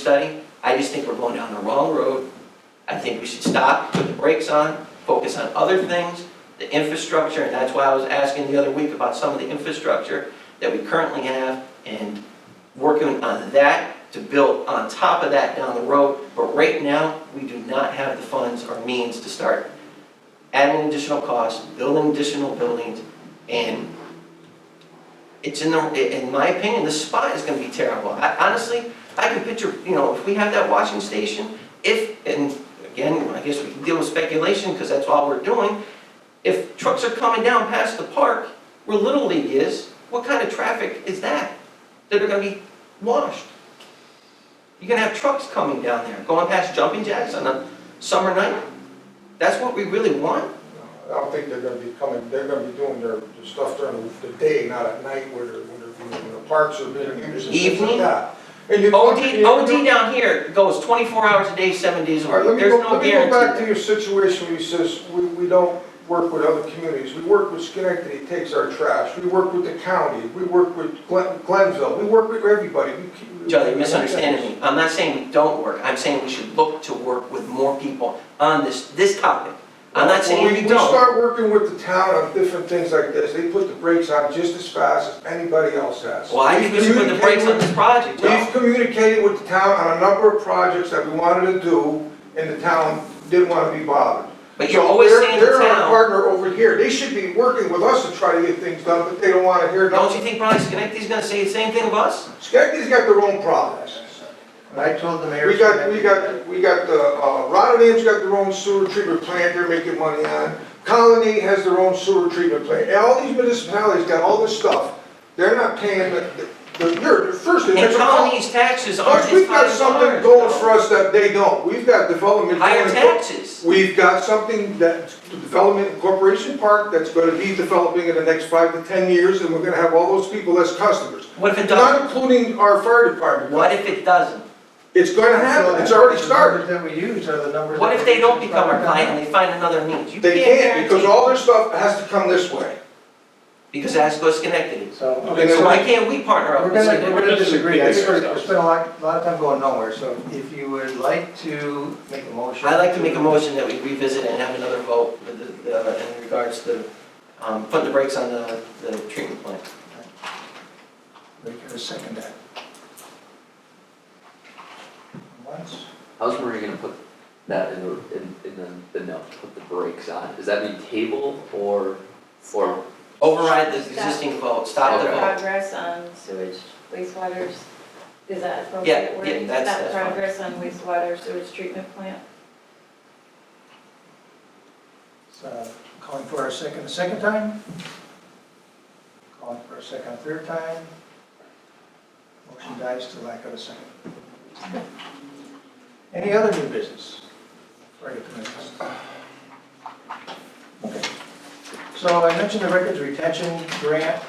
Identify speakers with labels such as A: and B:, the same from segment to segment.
A: study. I just think we're going down the wrong road. I think we should stop, put the brakes on, focus on other things, the infrastructure, and that's why I was asking the other week about some of the infrastructure that we currently have and working on that to build on top of that down the road. But right now, we do not have the funds or means to start adding additional costs, building additional buildings, and it's in the, in my opinion, the spot is gonna be terrible. I, honestly, I can picture, you know, if we have that washing station, if, and again, I guess we can deal with speculation, because that's all we're doing. If trucks are coming down past the park, where Little League is, what kind of traffic is that? That are gonna be washed? You're gonna have trucks coming down there, going past jumping jacks on a summer night? That's what we really want?
B: I don't think they're gonna be coming, they're gonna be doing their their stuff during the day, not at night where, they're- when they're- when the parks are being used and things like
A: Evening?
B: that. And you-
A: OD,
B: you-
A: OD down here goes twenty-four hours a day, seven days a
B: All right, let
A: week,
B: me
A: there's
B: go,
A: no
B: let me go back to
A: guarantee.
B: your situation where you says, we, we don't work with other communities. We work with Schenectady, takes our trash. We work with the county. We work with Glen, Glenville. We work with everybody. We keep-
A: Joe, you're misunderstanding me, I'm not saying we don't work, I'm saying we should look to work with more people on this, this topic. I'm not
B: When
A: saying
B: we-
A: we
B: We
A: don't,
B: start working with the town on different things like this, they put the brakes on just as fast as anybody else has.
A: well, I think we should put the brakes on this project,
B: We've
A: Joe.
B: communicated with the town on a number of projects that we wanted to do, and the town didn't want to be bothered.
A: But you're
B: So
A: always
B: they're-
A: saying the
B: They're our
A: town-
B: partner over here, they should be working with us to try to get things done, but they don't want to hear
A: Don't you
B: nothing.
A: think Brian Schenectady's gonna say the same thing of us?
B: Schenectady's got their own problems.
C: But I told the mayor.
B: We got, we got, we got the, uh, Rotterdam's got their own sewer treatment plant they're making money on. Colony has their own sewer treatment plant, And all these municipalities got all this stuff, they're not paying the, the, the- you're, first,
A: And
B: there's a problem.
A: Colony's taxes aren't
B: Plus,
A: as
B: we've
A: high
B: got
A: as
B: something
A: ours,
B: going
A: Joe.
B: for us that they don't. We've got development.
A: Higher
B: going-
A: taxes,
B: We've got something that, development corporation park that's gonna be developing in the next five to ten years, and we're gonna have all those people as customers.
A: what if it
B: Not
A: doesn't?
B: including our fire department.
A: What if it doesn't?
B: It's gonna happen, it's already started.
C: The numbers that we use are the numbers.
A: What
C: that
A: if they don't
C: use.
A: become our client and they find another means? You
B: They can't, because
A: guarantee-
B: all their stuff has to come this way.
A: Because that's what's connected.
C: So,
B: Okay,
A: So
B: so
A: why can't we partner up
C: we're
A: with
C: gonna, we're
A: Schenectady?
C: gonna disagree, I think we're,
D: Disagree.
C: we spent a lot, a lot of time going nowhere, so if you would like to make a motion.
A: I'd like to make a motion that we revisit and have another vote with the- the- in regards to um, putting the brakes on the the treatment plant.
C: We can second that. Once,
D: How's Maria gonna put that in the, in, in the, the note, put the brakes on? Does that mean table or, or,
A: Override the
E: Stop.
A: existing vote, stop the
D: Okay.
A: vote.
E: Progress on sewage wastewaters, is that
A: Yeah,
E: appropriate
A: yeah,
E: wording?
A: that's- that's fine.
E: Stop progress on wastewater sewage treatment plant?
C: so calling for a second, a second time? Calling for a second, a third time? Motion dies to lack of a second. Any other new business? Before I get to my comments. Okay. So I mentioned the records retention grant,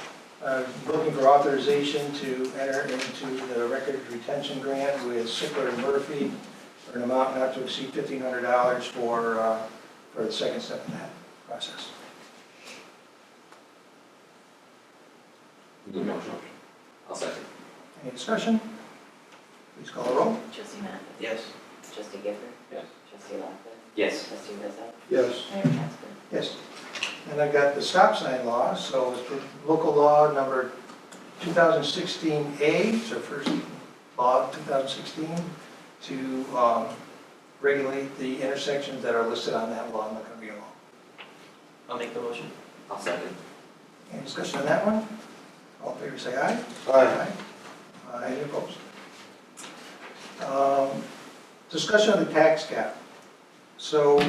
C: uh, looking for authorization to enter into the record retention grant with Sickler and Murphy for an amount not to exceed fifteen hundred dollars for, uh, for the second step in that process.
D: the motion? I'll second.
C: Any discussion? Please call the roll.
E: Trustee Matt?
A: Yes.
E: Trustee Gifford?
D: Yes.
E: Trustee Lockwood?
D: Yes.
E: Trustee Rizzo?
B: Yes.
E: Mayor Casper?
C: Yes. And I've got the stop sign law, so it's local law number 2016A, it's our first law of 2016, to um, regulate the intersections that are listed on that law, I'm not going to be long.
A: I'll make the motion.
D: I'll second.
C: Any discussion on that one? All in favor, say aye.
B: Aye.
C: Aye. Any opposed? Um, Discussion of the tax cap. So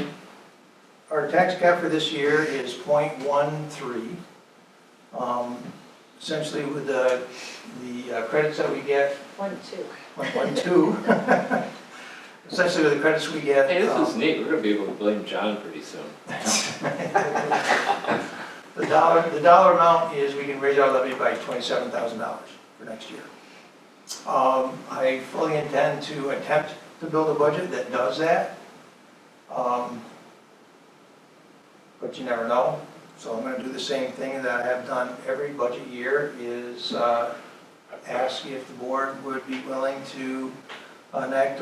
C: our tax cap for this year is 0.13. Um, Essentially with the, the uh, credits that we get,
E: One, two.
C: 1.2. Essentially with the credits we get.
F: Hey,
C: um,
F: this is neat, we're gonna be able to blame John pretty soon.
C: The dollar, the dollar amount is we can raise our levy by twenty-seven thousand dollars for next year. Um, I fully intend to attempt to build a budget that does that. Um, But you never know, so I'm gonna do the same thing that I have done every budget year is, uh, ask if the board would be willing to on Act